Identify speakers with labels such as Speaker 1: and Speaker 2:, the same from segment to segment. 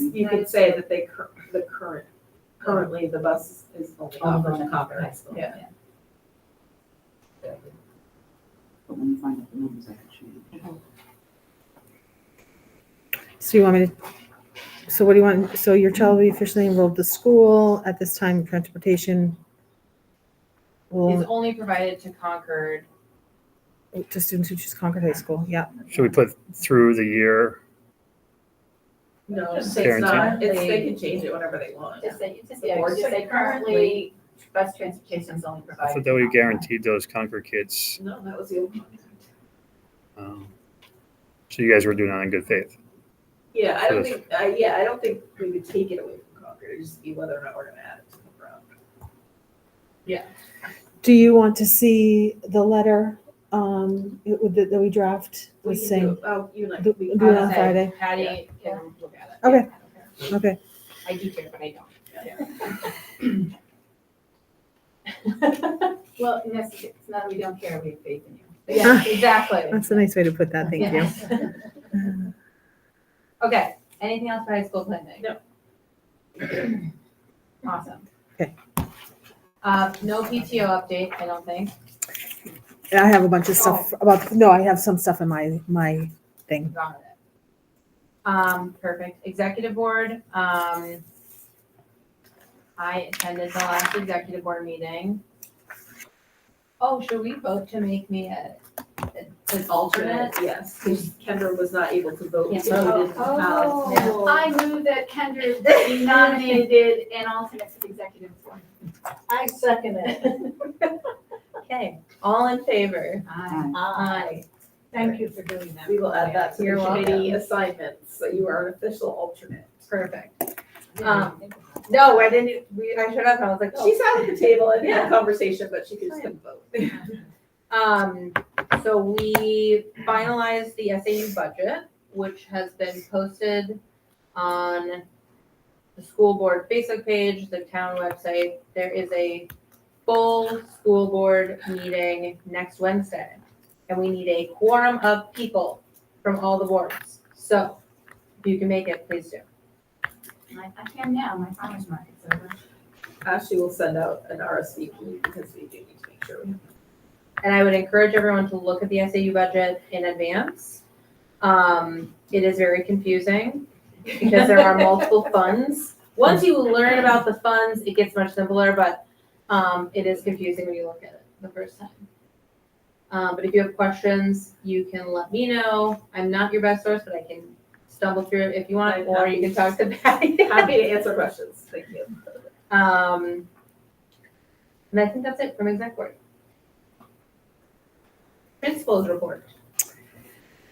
Speaker 1: you could say that they, cur- the current, currently the bus is only
Speaker 2: Only
Speaker 1: offering Concord High School.
Speaker 2: yeah.
Speaker 3: But when you find out the numbers, I can change.
Speaker 4: So you want me to, so what do you want, so your child will be officially enrolled at the school at this time, transportation
Speaker 2: Is
Speaker 4: will,
Speaker 2: only provided to Concord.
Speaker 4: to students who choose Concord High School, yeah.
Speaker 5: Should we put through the year?
Speaker 1: No, it's
Speaker 2: Just
Speaker 5: say it's
Speaker 1: not, it's, they
Speaker 2: currently-
Speaker 1: can change it whenever they want.
Speaker 2: Just say, just,
Speaker 1: The
Speaker 2: yeah,
Speaker 1: board
Speaker 2: just say currently, bus transportation is only
Speaker 5: I
Speaker 2: provided.
Speaker 5: thought
Speaker 2: to
Speaker 5: that we
Speaker 2: Concord.
Speaker 5: guaranteed those Concord kids.
Speaker 1: No, that was the old one.
Speaker 5: um, So you guys were doing that in good faith.
Speaker 1: Yeah, I don't
Speaker 5: So
Speaker 1: think, uh, yeah, I don't think we would take it away from Concord, it'd just be whether or not we're gonna add it to the program.
Speaker 4: Do you want to see the letter, um, it would- that we draft
Speaker 1: We
Speaker 4: with
Speaker 1: can do
Speaker 4: saying,
Speaker 1: it- Oh, you and I.
Speaker 4: do
Speaker 1: we-
Speaker 4: do it on
Speaker 2: I'll say
Speaker 4: Friday?
Speaker 2: Patty can look at it.
Speaker 4: Okay. Okay,
Speaker 2: I do care, but I don't.
Speaker 6: Well, necess- it's not, that we don't care, we have faith in you.
Speaker 2: Yeah, exactly.
Speaker 4: that's a nice way to put that, thank you.
Speaker 2: you. Okay, anything else for high school planning?
Speaker 1: No.
Speaker 2: Awesome.
Speaker 4: Okay.
Speaker 2: Uh, no PTO update, I don't think.
Speaker 4: I have a bunch of
Speaker 1: Oh.
Speaker 4: stuff about, no, I have some stuff in my, my thing.
Speaker 2: Got it. Um, perfect. Executive board, um, I attended the last executive board meeting. Oh, should we vote to make me a, a- an alternate?
Speaker 1: Yes, because Kendra was not able to vote,
Speaker 2: Yeah.
Speaker 1: so we didn't have.
Speaker 2: Oh.
Speaker 6: I move that Kendra be nominated and alternate for the executive board.
Speaker 7: I second it.
Speaker 2: Okay, all in favor?
Speaker 6: Aye.
Speaker 2: Aye.
Speaker 7: Thank you for doing that.
Speaker 1: We will add that to the
Speaker 2: You're welcome.
Speaker 1: committee assignments, so you are an official alternate.
Speaker 2: Perfect. Um, no, I didn't, we, I showed up and I was like,
Speaker 1: She
Speaker 2: she's
Speaker 1: sat at the table and had
Speaker 2: Yeah.
Speaker 1: a conversation, but she just couldn't vote.
Speaker 2: Um, so we finalized the SAU budget, which has been posted on the school board Facebook page, the town website. There is a full school board meeting next Wednesday. And we need a quorum of people from all the boards. So if you can make it, please do.
Speaker 6: I I can now, my farmer's market's over.
Speaker 1: Ashley will send out an RSVP because we do need to make sure we have.
Speaker 2: And I would encourage everyone to look at the SAU budget in advance. Um, it is very confusing because there are multiple funds. Once you learn about the funds, it gets much simpler, but um, it is confusing when you look at it the first time. Um, but if you have questions, you can let me know. I'm not your best source, but I can stumble through it if you want,
Speaker 1: I'm
Speaker 2: or you can talk to Patty.
Speaker 1: Happy to answer questions, thank you.
Speaker 2: Um, and I think that's it from exec board. Principals report.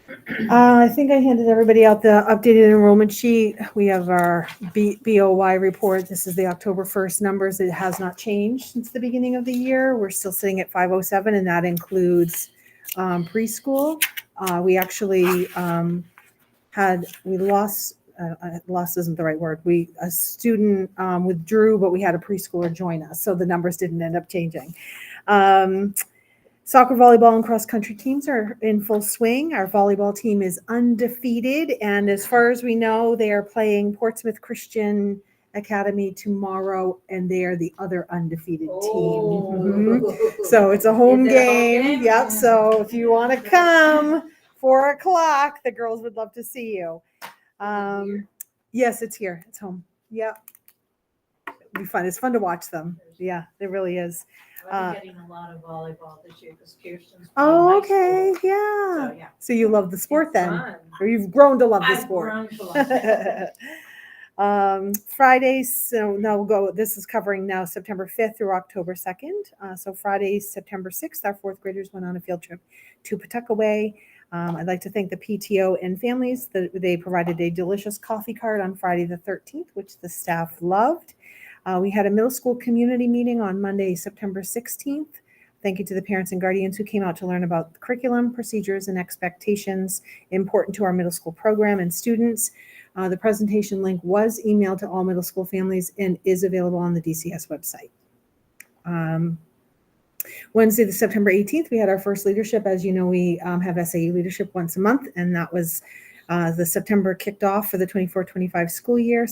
Speaker 4: Uh, I think I handed everybody out the updated enrollment sheet. We have our B, BOY report. This is the October 1st numbers. It has not changed since the beginning of the year. We're still sitting at 507 and that includes um, preschool. Uh, we actually um, had, we lost, uh, uh, lost isn't the right word. We, a student um, withdrew, but we had a preschooler join us. So the numbers didn't end up changing. Um, Soccer, volleyball, and cross country teams are in full swing. Our volleyball team is undefeated. And as far as we know, they are playing Portsmouth Christian Academy tomorrow, and they are the other undefeated
Speaker 1: Oh.
Speaker 4: team. Mhm.
Speaker 7: Oh.
Speaker 4: So it's a home
Speaker 2: Is it a home
Speaker 4: game.
Speaker 2: game?
Speaker 4: Yep. So if you want to come, four o'clock, the girls would love to see you. Um, yes, it's here. It's home. Yep. It'll be fun. It's fun to watch them. Yeah, it really is. Uh,
Speaker 7: I'm getting a lot of volleyball this year because Kirsten's.
Speaker 4: Oh,
Speaker 7: playing high
Speaker 4: okay. Yeah.
Speaker 7: school. So, yeah.
Speaker 4: So you love the sport
Speaker 2: It's
Speaker 4: then,
Speaker 2: fun.
Speaker 4: or you've grown to love the
Speaker 7: I've
Speaker 4: sport.
Speaker 7: grown to love it.
Speaker 4: um, Friday, so now we'll go. This is covering now September 5th through October 2nd. Uh, so Friday, September 6th, our fourth graders went on a field trip to Pawtuckaway. Um, I'd like to thank the PTO and families that they provided a delicious coffee cart on Friday the 13th, which the staff loved. Uh, we had a middle school community meeting on Monday, September 16th. Thank you to the parents and guardians who came out to learn about the curriculum, procedures, and expectations important to our middle school program and students. Uh, the presentation link was emailed to all middle school families and is available on the DCS website. Um, Wednesday, the September 18th, we had our first leadership. As you know, we um, have SAU leadership once a month, and that was uh, the September kicked off for the 24 25 school year.